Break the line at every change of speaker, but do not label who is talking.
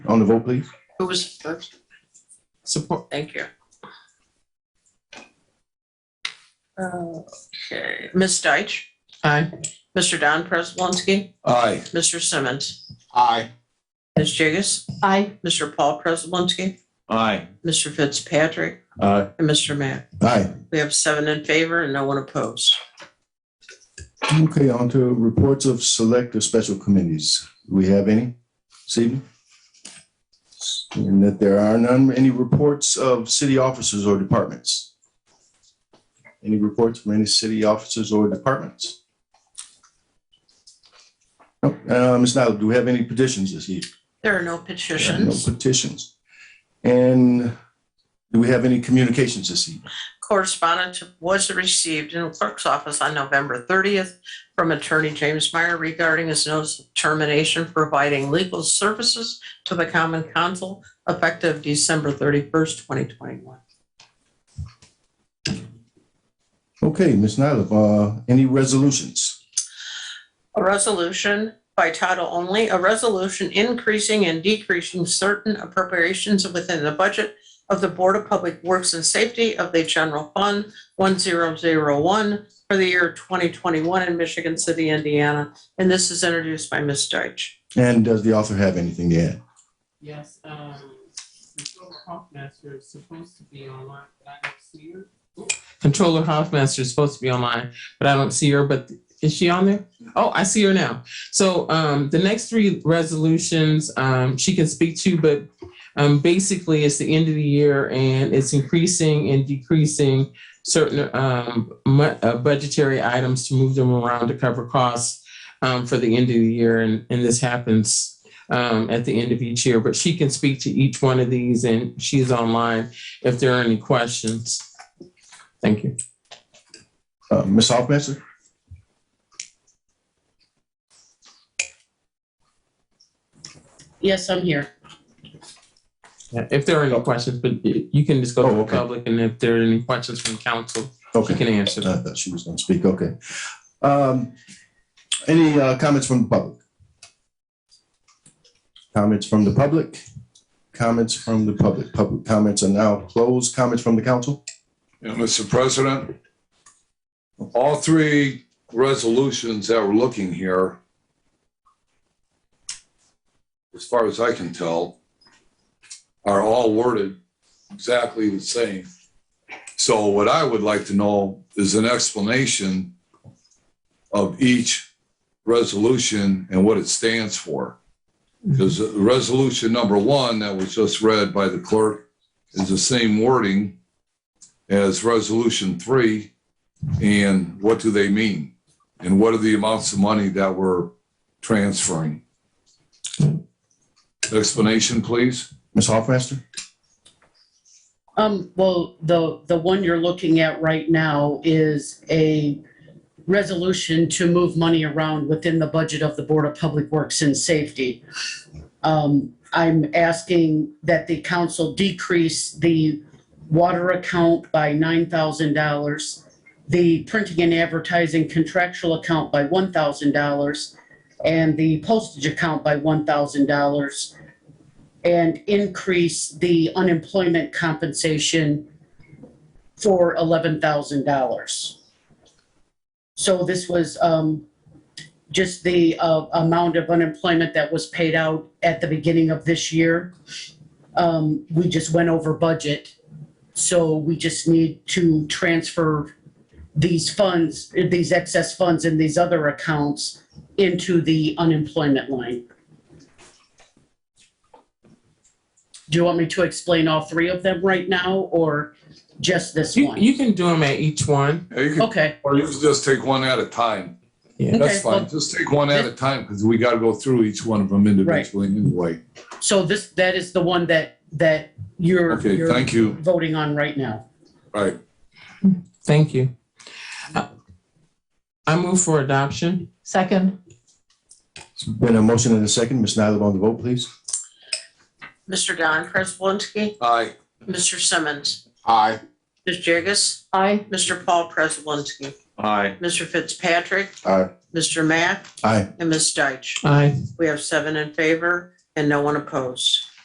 On the vote, please.
Who was first?
Support,
Thank you. Okay, Ms. Deitch,
aye.
Mr. Don Prespolinski,
Aye.
Mr. Simmons,
Aye.
Ms. Jigus,
Aye.
Mr. Paul Prespolinski,
Aye.
Mr. Fitzpatrick,
Aye.
and Mr. Matt.
Aye.
We have seven in favor and no one opposed.
Okay, on to reports of select or special committees. Do we have any this evening? And that there are none, any reports of city officers or departments? Any reports from any city officers or departments? Nope. Uh, Ms. Nyla, do we have any petitions this evening?
There are no petitions.
No petitions. And do we have any communications this evening?
Correspondence was received in the clerk's office on November 30th from Attorney James Meyer regarding his notice of termination providing legal services to the Common Council effective December 31st, 2021.
Okay, Ms. Nyla, uh, any resolutions?
A resolution by title only, a resolution increasing and decreasing certain appropriations within the budget of the Board of Public Works and Safety of the General Fund 1001 for the year 2021 in Michigan City, Indiana. And this is introduced by Ms. Deitch.
And does the author have anything to add?
Yes, um, Controller Hoffmaster is supposed to be online, but I don't see her. Controller Hoffmaster is supposed to be online, but I don't see her, but is she on there? Oh, I see her now. So, um, the next three resolutions, um, she can speak to, but, um, basically it's the end of the year and it's increasing and decreasing certain, um, mu- uh, budgetary items to move them around to cover costs, um, for the end of the year. And, and this happens, um, at the end of each year, but she can speak to each one of these and she's online if there are any questions. Thank you.
Uh, Ms. Hoffmeister?
Yes, I'm here.
Yeah, If there are any questions, but y- you can just go to
Oh,
the
okay.
public and if there are any questions from council, you
Okay,
can answer
I
them.
thought she was going to speak, okay. Um, Any uh, comments from the public? Comments from the public? Comments from the public? Public comments are now closed. Comments from the council?
Yeah, Mr. President, all three resolutions that we're looking here, as far as I can tell, are all worded exactly the same. So what I would like to know is an explanation of each resolution and what it stands for. Because resolution number one that was just read by the clerk is the same wording as resolution three, and what do they mean? And what are the amounts of money that we're transferring? Explanation, please?
Ms. Hoffmeister?
Um, well, the, the one you're looking at right now is a resolution to move money around within the budget of the Board of Public Works and Safety. Um, I'm asking that the council decrease the water account by nine thousand dollars, the printing and advertising contractual account by one thousand dollars, and the postage account by one thousand dollars and increase the unemployment compensation for eleven thousand dollars. So this was um, just the uh, amount of unemployment that was paid out at the beginning of this year. Um, We just went over budget, so we just need to transfer these funds, these excess funds in these other accounts into the unemployment line. Do you want me to explain all three of them right now or just this
You,
one?
you can do them at each one.
Yeah, you can-
Okay,
Or you can just take one at a time.
Yeah.
That's
Oh. Okay,
fine,
well-
just take one at a time, because we got to go through each one of them individually anyway.
so this, that is the one that, that you're,
Okay,
you're
thank you.
voting on right now.
Right,
Thank you. Uh, I move for adoption.
Second.
Been a motion and a second. Ms. Nyla on the vote, please.
Mr. Don Prespolinski,
aye.
Mr. Simmons,
Aye.
Ms. Jigus,
Aye.
Mr. Paul Prespolinski,
Aye.
Mr. Fitzpatrick,
Aye.
Mr. Matt,
Aye.
and Ms. Deitch.
Aye.
We have seven in favor and no one opposed.